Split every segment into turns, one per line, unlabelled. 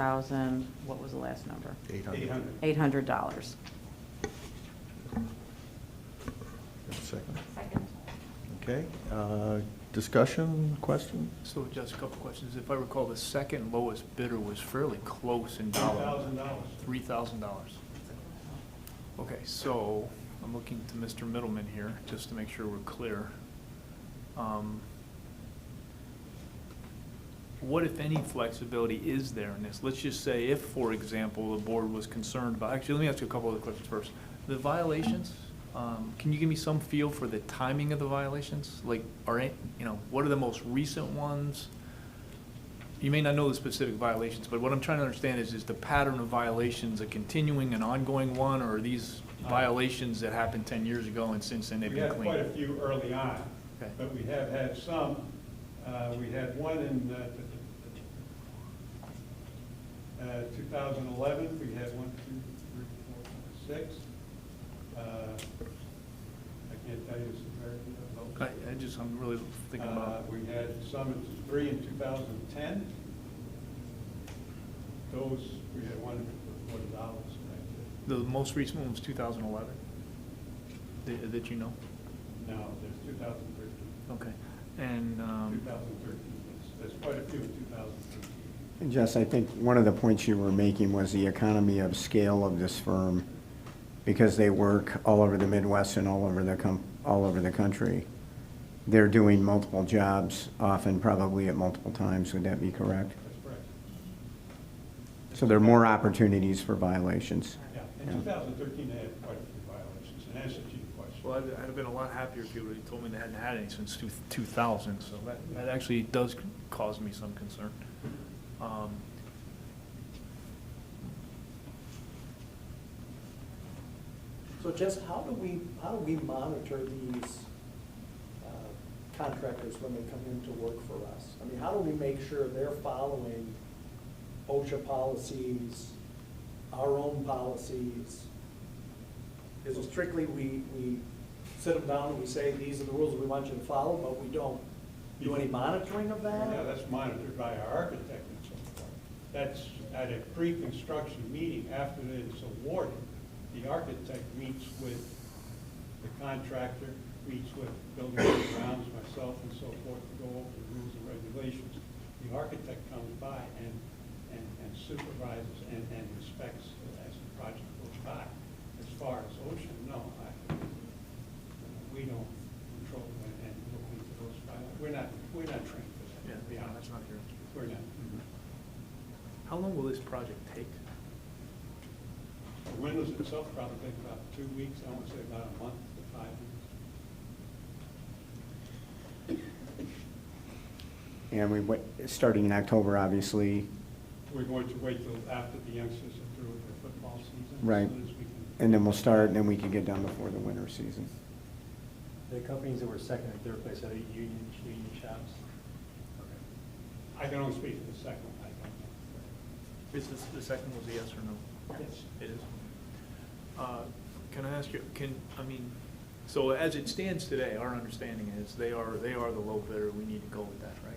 4,000, what was the last number?
Eight
Eight
hundred.
hundred.
$800.
Second.
Second.
Okay, uh, discussion, question?
So just a couple questions. If I recall, the second lowest bidder was fairly close in dollar.
Thousand dollars.
Three thousand dollars. Okay, so I'm looking to Mr. Middleman here, just to make sure we're clear. Um, What, if any, flexibility is there in this? Let's just say if, for example, the board was concerned about, actually, let me ask you a couple other questions first. The violations, um, can you give me some feel for the timing of the violations? Like, are, it- you know, what are the most recent ones? You may not know the specific violations, but what I'm trying to understand is, is the pattern of violations a continuing and ongoing one, or are these violations that happened ten years ago and since then they've
We
been
had
cleaned?
Uh, quite a few early on,
Okay.
but we have had some. Uh, We had one in uh, t- t- uh, 2011, we had one, two, three, four, five, six. Uh, I can't tell you, it's a very,
I, I just, I'm really thinking
Uh,
about,
We had some, in- three in 2010. Those, we had one for $40, and
the most recent one was two thousand eleven, that, that you know?
that's it. No, there's 2013.
Okay, and, um,
2013, There's- there's quite a few in 2013.
And Jess, I think one of the points you were making was the economy of scale of this firm, because they work all over the Midwest and all over the, com- all over the country. They're doing multiple jobs, often probably at multiple times, would that be correct?
That's correct.
So there are more opportunities for violations.
Yeah, in 2013, they had quite a few violations, and that's a chief question.
well, I'd, I'd have been a lot happier if you would've told me they hadn't had any since two, two thousand, so that, that actually does cause me some concern. Um,
So Jess, how do we, how do we monitor these uh, contractors when they come in to work for us? I mean, how do we make sure they're following OSHA policies, our own policies? Is it strictly we, we sit them down and we say, these are the rules we want you to follow, but we don't do any monitoring of that?
Yeah, that's monitored by our architect and so forth. That's at a pre-construction meeting after it's awarded. The architect meets with the contractor, meets with building and grounds, myself and so forth, to go over the rules and regulations. The architect comes by and, and and supervises and, and inspects as the project goes by. As far as ocean, no, I, we don't control and, and look into those files. We're not, we're not trained for that.
yeah,
to be
yeah,
honest. Mm-hmm.
that's not here.
We're not.
How long will this project take?
The windows itself probably take about two weeks, I want to say about a month to five weeks.
And we, went- starting in October, obviously,
We're going to wait till after the youngsters are through with their football season. as
Right.
soon as we can-
and then we'll start, and then we can get done before the winter season.
The companies that were second and third place are the union, union shops.
I can only speak for the second one, I don't
Is this, the second was a yes or no?
know. Yes.
It is. Uh, Can I ask you, can, I mean, so as it stands today, our understanding is they are, they are the low bidder, we need to go with that, right?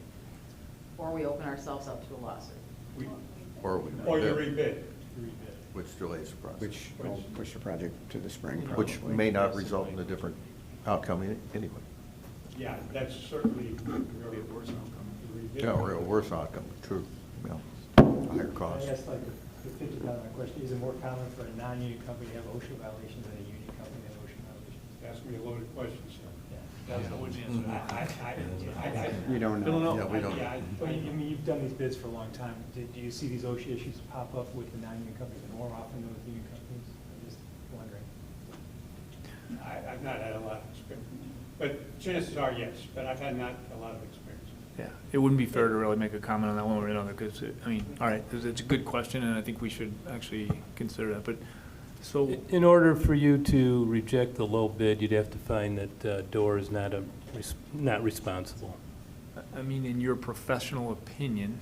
Or we open ourselves up to a lawsuit.
We-
Or we.
Or you rebid.
Which delays the process.
Which will push the project to the spring, probably.
Which may not result in a different outcome any- anyway.
Yeah, that's certainly.
Be a worse outcome.
Rebid.
Yeah, or a worse outcome, true, yeah, higher cost.
I guess like the fifty thousand question, is it more common for a non-union company to have OSHA violations than a union company to have OSHA violations?
Ask me a loaded question, sir.
That's the wooden
I,
answer.
I, I, I. I-
You don't know.
Don't know.
Yeah, we don't.
Yeah, I-
Well, you- I mean, you've done these bids for a long time. Do, do you see these OSHA issues pop up with the non-union companies more often than with union companies? I'm just wondering.
I, I've not had a lot of experience, but chances are, yes, but I've had not a lot of experience.
Yeah, it wouldn't be fair to really make a comment on that one way or another, because, I mean, all right, it's- it's a good question, and I think we should actually consider that, but, so,
In order for you to reject the low bid, you'd have to find that uh, Door is not a, res- not responsible.
I- I mean, in your professional opinion,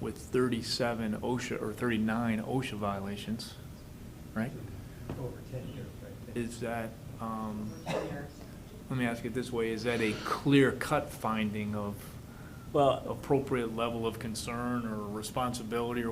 with thirty-seven OSHA, or thirty-nine OSHA violations, right?
Over ten years, right?
Is that, um,
For 10 years.
let me ask it this way, is that a clear-cut finding of
Well,
appropriate level of concern or responsibility or